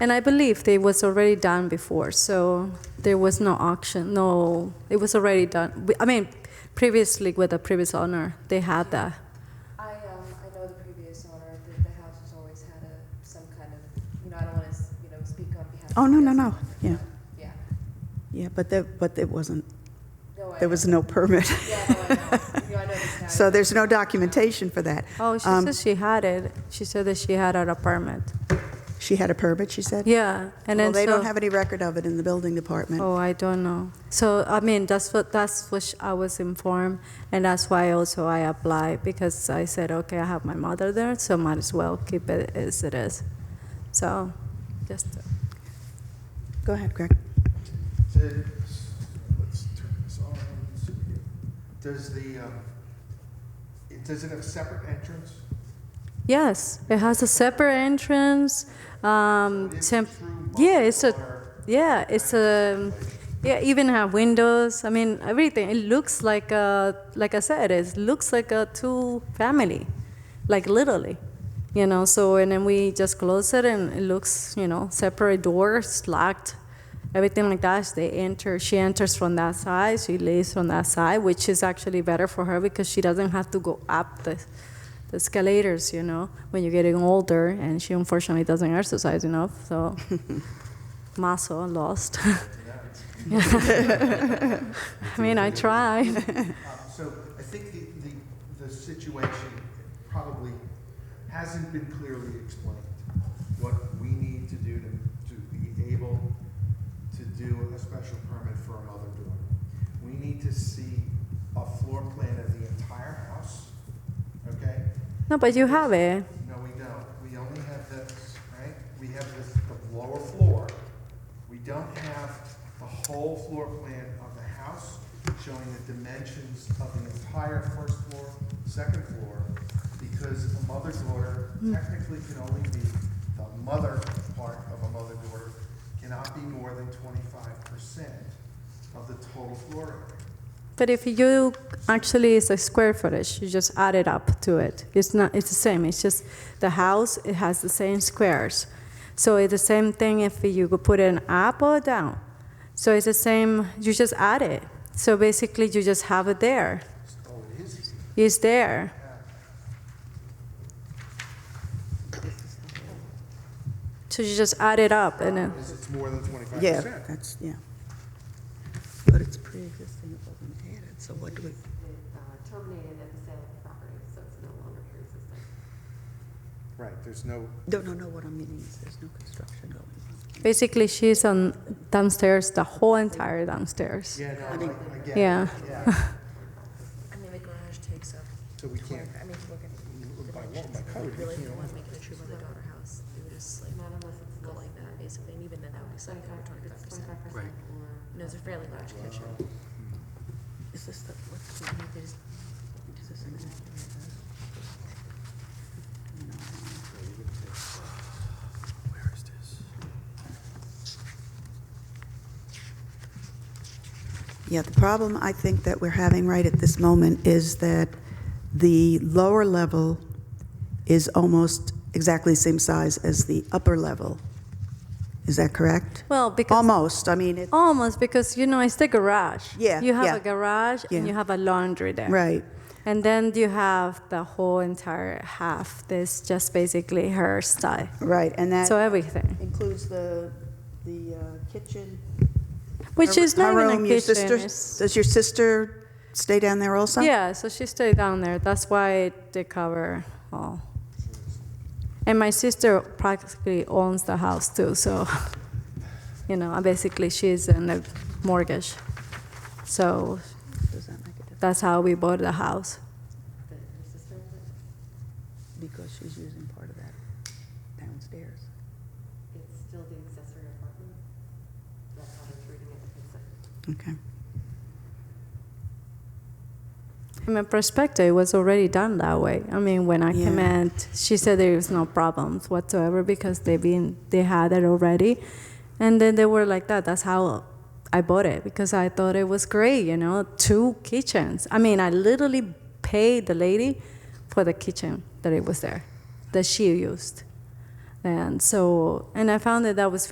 And I believe they was already done before, so there was no auction, no, it was already done. We- I mean, previously with the previous owner, they had that. I, um, I know the previous owner, the, the house has always had a, some kind of, you know, I don't wanna, s- you know, speak on behalf of. Oh, no, the no, no. other Yeah. owner, but, Yeah. Yeah, but that, but it wasn't, No, I there know. was no permit. Yeah, no, I know. You know, I know this now. So there's no documentation for that. Oh, she Um, said she had it. She said that she had an apartment. She had a permit, she said? Yeah, and Well, then they so, don't have any record of it in the building department. Oh, I don't know. So I mean, that's what that's what sh- I was informed, and that's why also I applied because I said, okay, I have my mother there, so might as well keep it as it is. So, just. Go ahead, Greg. Did, let's turn this on, so we get- does the, um, it- does it have separate entrance? Yes, it has a separate entrance. Um, Is it temp- through yeah, it's a, or- yeah, it's a, yeah, even have windows. I mean, everything. It looks like a, like I said, it looks like a two family, like literally, you know. So and then we just close it, and it looks, you know, separate doors, locked, everything like that. They enter. She enters from that side. She lays on that side, which is actually better for her because she doesn't have to go up the the escalators, you know, when you're getting older, and she unfortunately doesn't exercise enough, so muscle lost. I mean, I try. Um, So I think the, the, the situation probably hasn't been clearly explained. What we need to do to, to be able to do a special permit for a mother daughter. We need to see a floor plan of the entire house, okay? No, but you have it. No, we don't. We only have this, right? We have this, the lower floor. We don't have the whole floor plan of the house showing the dimensions of the entire first floor, second floor, because a mother-daughter technically can only be, the mother part of a mother-daughter cannot be more than twenty-five percent of the total floor area. But if you actually it's a square footage, you just add it up to it. It's not. It's the same. It's just the house. It has the same squares. So it's the same thing if you could put an up or down. So it's the same. You just add it. So basically, you just have it there. Oh, it is, It's there. So you just add it up and then. it's it's more than twenty-five Yeah, percent. that's, yeah. But it's pre-existing, it wasn't added, so what do we, Uh, Terminated at the sale of the property, so it's no longer pre-existing. Right, there's no, no, no, no, what I'm meaning is there's no construction going on. Basically, she's on downstairs, the whole entire downstairs. yeah, no, mean- I, I get it. Yeah. Yeah. I mean, the garage takes up, So we twen- can't, I mean, if you look at the by law, dimensions, by if code, you we really can't. want to make it a true mother-daughter house, it would just like, Not unless it's go less like that, basically, and even then, that would be something over twenty-five than percent. twenty-five percent. Right. No, it's a fairly large kitchen. Hmm. Is this the, what's the, they just, is this an accurate? Where is this? Yeah, the problem I think that we're having right at this moment is that the lower level is almost exactly the same size as the upper level. Is that correct? Well, because Almost, I mean, it, almost because you know it's the garage. Yeah, You have yeah. a garage and Yeah. you have a laundry there. right, And then you have the whole entire half. This just basically her style. right, and So that everything, includes the, the uh, kitchen. which her- is not her even room, a your kitchen. sister- it's- Does your sister stay down there also? Yeah, so she stayed down there. That's why they cover all. And my sister practically owns the house too, so you know, basically she's in the mortgage. So Does that make a difference? that's how we bought the house. Because she's using part of that downstairs. It's still the accessory apartment. That's how it's reading it. It's a- Okay. From my perspective, it was already done that way. I mean, when I came Yeah. in, she said there was no problems whatsoever because they been they had it already, and then they were like that. That's how I bought it because I thought it was great. You know, two kitchens. I mean, I literally paid the lady for the kitchen that it was there, that she used. And so, and I found that that was